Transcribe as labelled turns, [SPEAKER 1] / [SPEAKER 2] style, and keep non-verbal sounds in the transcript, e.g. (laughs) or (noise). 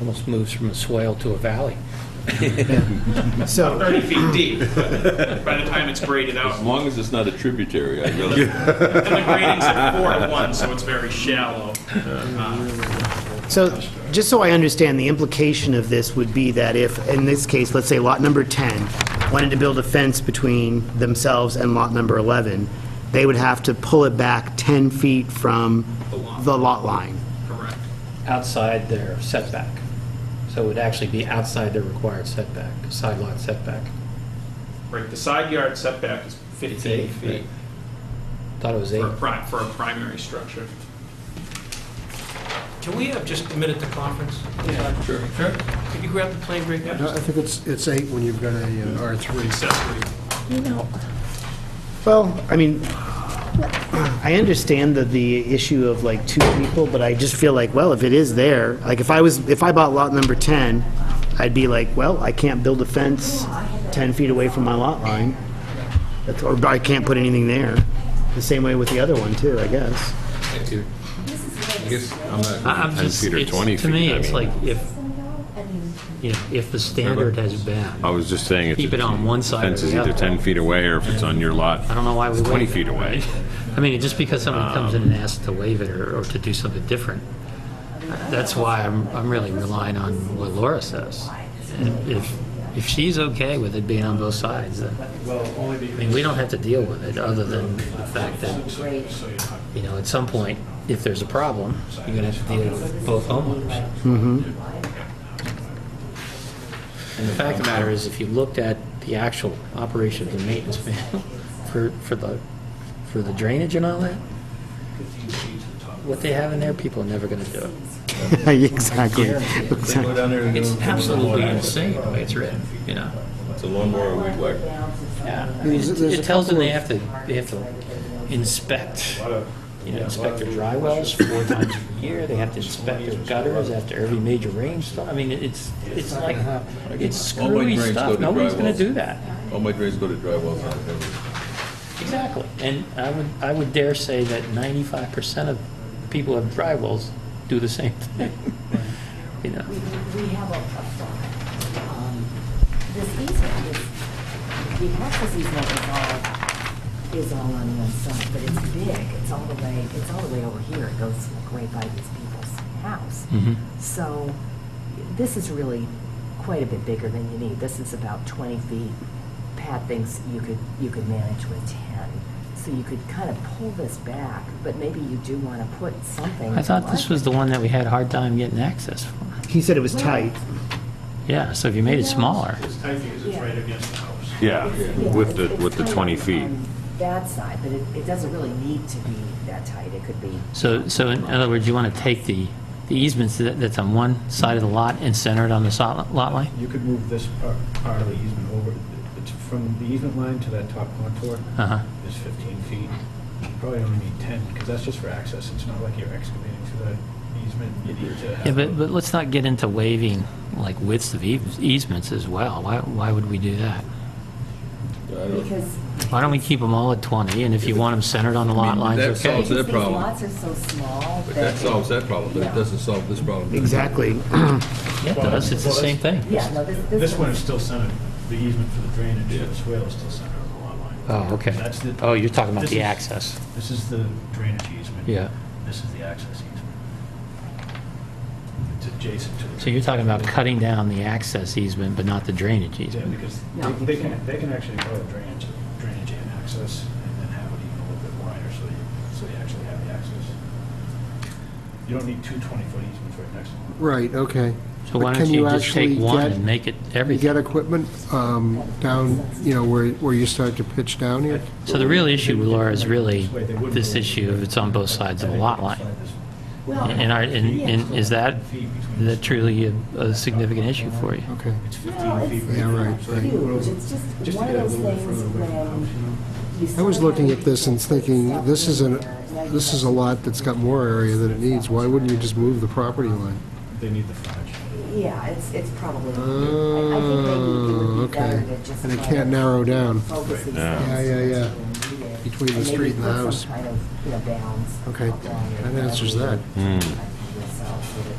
[SPEAKER 1] Almost moves from a swale to a valley.
[SPEAKER 2] So,
[SPEAKER 3] 30 feet deep by the time it's graded out.
[SPEAKER 4] As long as it's not a tributary, I really,
[SPEAKER 3] And the grading's at four to one, so it's very shallow. Uh,
[SPEAKER 2] so, just so I understand, the implication of this would be that if, in this case, let's say lot number 10 wanted to build a fence between themselves and lot number 11, they would have to pull it back 10 feet from
[SPEAKER 3] lot.
[SPEAKER 2] the lot line.
[SPEAKER 3] Correct.
[SPEAKER 5] outside their setback. So it would actually be outside their required setback, side lot setback.
[SPEAKER 3] Right, the side yard setback is 15
[SPEAKER 5] eight,
[SPEAKER 3] feet
[SPEAKER 5] right. Thought it was
[SPEAKER 3] for a
[SPEAKER 5] eight.
[SPEAKER 3] pri, for a primary structure.
[SPEAKER 6] Can we have just a minute to conference?
[SPEAKER 4] sure.
[SPEAKER 6] Sure. Could you grab the plane break?
[SPEAKER 7] No, I think it's, it's eight when you've got a uh, R3.
[SPEAKER 3] Accessory.
[SPEAKER 8] You know,
[SPEAKER 2] Well, I mean, I understand that the issue of like two people, but I just feel like, well, if it is there, like if I was, if I bought lot number 10, I'd be like, well, I can't build a fence 10 feet away from my lot line. That's- Or I can't put anything there. The same way with the other one too, I guess. (laughs)
[SPEAKER 4] I guess I'm
[SPEAKER 6] I- I'm
[SPEAKER 4] not
[SPEAKER 6] just, it's, to me, it's like if, you know, if the standard has
[SPEAKER 9] I
[SPEAKER 6] been,
[SPEAKER 9] was just saying, if
[SPEAKER 6] Keep it on one side or
[SPEAKER 9] Fence is
[SPEAKER 6] the
[SPEAKER 9] either
[SPEAKER 6] other.
[SPEAKER 9] 10 feet away, or if it's on your lot.
[SPEAKER 6] I don't know why we
[SPEAKER 9] It's 20
[SPEAKER 6] waive it.
[SPEAKER 9] feet away.
[SPEAKER 6] I mean, just because someone comes in and asks to waive it or, or to do something different, that's why I'm, I'm really relying on what Laura says. And If, if she's okay with it being on both sides, then, I mean, we don't have to deal with it, other than the fact that, you know, at some point, if there's a problem, you're gonna have to deal with both homeowners. And the fact of the matter is, if you looked at the actual operation of the maintenance manual (laughs) for, for the, for the drainage and all that, what they have in there, people are never gonna do it.
[SPEAKER 2] Exactly.
[SPEAKER 6] It's absolutely insane the way it's written, you know?
[SPEAKER 4] It's a lawnmower weed whacker.
[SPEAKER 6] Yeah. I mean,
[SPEAKER 7] There's-
[SPEAKER 6] It
[SPEAKER 7] there's a
[SPEAKER 6] it tells them
[SPEAKER 7] couple
[SPEAKER 6] they have to, they have to inspect, you know, inspect their dry wells four times a year, they have to inspect their gutters after every major rainstorm. I mean, it's, it's like, it's
[SPEAKER 4] All my
[SPEAKER 6] screwy
[SPEAKER 4] drains go
[SPEAKER 6] stuff,
[SPEAKER 4] to
[SPEAKER 6] nobody's
[SPEAKER 4] dry
[SPEAKER 6] gonna
[SPEAKER 4] wells.
[SPEAKER 6] do that.
[SPEAKER 4] All my drains go to dry wells.
[SPEAKER 6] Exactly, and I would, I would dare say that ninety-five percent of people who have dry wells do the same (laughs) thing, you know?
[SPEAKER 8] we we have a, a thought. Um, This easement is, the access easement is all, is all on one side, but it's big. It's all the way, it's all the way over here. It goes like, right by these people's house.
[SPEAKER 6] Mm-hmm.
[SPEAKER 8] So this is really quite a bit bigger than you need. This is about 20 feet. Pat thinks you could, you could manage with 10. So you could kind of pull this back, but maybe you do want to put something.
[SPEAKER 6] I thought this
[SPEAKER 8] like-
[SPEAKER 6] was the one that we had a hard time getting access for.
[SPEAKER 2] He said it was tight.
[SPEAKER 6] Yeah, so if you made it smaller,
[SPEAKER 8] Yeah.
[SPEAKER 9] Yeah,
[SPEAKER 8] Yeah,
[SPEAKER 9] with the,
[SPEAKER 8] it's-
[SPEAKER 9] with the
[SPEAKER 8] it's
[SPEAKER 9] 20
[SPEAKER 8] kind of
[SPEAKER 9] feet.
[SPEAKER 8] on That side, but it, it doesn't really need to be that tight, it could be.
[SPEAKER 6] so, so in other words, you want to take the, the easements that- that's on one side of the lot and center it on the sol- lot line?
[SPEAKER 10] You could move this part, part of the easement over, it's from the easement line to that top contour
[SPEAKER 6] Uh-huh.
[SPEAKER 10] is 15 feet. You Probably only need 10, because that's just for access. It's not like you're excavating for the easement. You need to
[SPEAKER 6] Yeah,
[SPEAKER 10] have.
[SPEAKER 6] but, but let's not get into waiving, like widths of eas- easements as well, why, why would we do that?
[SPEAKER 8] Because.
[SPEAKER 6] Why don't we keep them all at 20, and if you want them centered on the lot
[SPEAKER 4] I mean,
[SPEAKER 6] lines,
[SPEAKER 4] that
[SPEAKER 6] okay?
[SPEAKER 4] solves
[SPEAKER 8] because
[SPEAKER 4] that
[SPEAKER 8] these
[SPEAKER 4] problem.
[SPEAKER 8] Lots are so small
[SPEAKER 4] But
[SPEAKER 8] that.
[SPEAKER 4] that
[SPEAKER 8] it-
[SPEAKER 4] solves that problem, but it doesn't solve this problem.
[SPEAKER 2] Exactly.
[SPEAKER 6] Yeah, it does, it's the same thing.
[SPEAKER 8] Yeah, no, this, this.
[SPEAKER 10] This one is still centered, the easement for the drainage, for the swale is still centered on the lot line.
[SPEAKER 6] Oh, okay.
[SPEAKER 10] That's the-
[SPEAKER 6] Oh, you're talking about
[SPEAKER 10] this
[SPEAKER 6] the
[SPEAKER 10] is-
[SPEAKER 6] access.
[SPEAKER 10] This is the drainage easement.
[SPEAKER 6] Yeah.
[SPEAKER 10] This is the access easement. It's adjacent to the.
[SPEAKER 6] So you're talking about cutting down the access easement, but not the drainage
[SPEAKER 10] Yeah,
[SPEAKER 6] easement?
[SPEAKER 10] because
[SPEAKER 8] No,
[SPEAKER 10] they-
[SPEAKER 8] you
[SPEAKER 10] they can,
[SPEAKER 8] can't.
[SPEAKER 10] they can actually go to drainage, drainage and access, and then have it even a little bit wider, so you, so you actually have the access. You don't need two 20-foot easements right next to one.
[SPEAKER 7] Right, okay.
[SPEAKER 6] So why
[SPEAKER 7] But
[SPEAKER 6] don't
[SPEAKER 7] can
[SPEAKER 6] you just
[SPEAKER 7] actually
[SPEAKER 6] take one
[SPEAKER 7] get-
[SPEAKER 6] and make it
[SPEAKER 7] You
[SPEAKER 6] everything?
[SPEAKER 7] get equipment um, down, you know, where, where you start to pitch down here?
[SPEAKER 6] So the real issue, Laura, is really this issue of it's on both sides of the lot line.
[SPEAKER 8] Well,
[SPEAKER 6] And are, and, and is that, is that truly a, a significant issue for you?
[SPEAKER 7] Okay.
[SPEAKER 8] No, it's,
[SPEAKER 7] Yeah, right,
[SPEAKER 8] it's not
[SPEAKER 7] right.
[SPEAKER 8] huge, it's just one of those things when you.
[SPEAKER 7] I was
[SPEAKER 8] sort of
[SPEAKER 7] looking
[SPEAKER 8] have
[SPEAKER 7] at this and
[SPEAKER 8] to put
[SPEAKER 7] thinking,
[SPEAKER 8] stuff
[SPEAKER 7] this
[SPEAKER 8] in
[SPEAKER 7] is an,
[SPEAKER 8] there, now you
[SPEAKER 7] this
[SPEAKER 8] have
[SPEAKER 7] is a lot that's got more area than it needs. Why wouldn't you just move the property line?
[SPEAKER 10] They need the frontage.
[SPEAKER 8] Yeah, it's, it's probably. I- I think maybe it
[SPEAKER 7] Oh,
[SPEAKER 8] would be better
[SPEAKER 7] okay.
[SPEAKER 8] to just
[SPEAKER 7] And it
[SPEAKER 8] try
[SPEAKER 7] can't
[SPEAKER 8] to
[SPEAKER 7] narrow down.
[SPEAKER 8] focus these
[SPEAKER 7] Yeah,
[SPEAKER 8] things
[SPEAKER 7] yeah, yeah.
[SPEAKER 8] when needed.
[SPEAKER 7] Between the
[SPEAKER 8] And maybe
[SPEAKER 7] street and the
[SPEAKER 8] put some
[SPEAKER 7] house.
[SPEAKER 8] kind of, you know, bounds
[SPEAKER 7] Okay,
[SPEAKER 8] along it,
[SPEAKER 7] that answers that.
[SPEAKER 8] whatever you- So that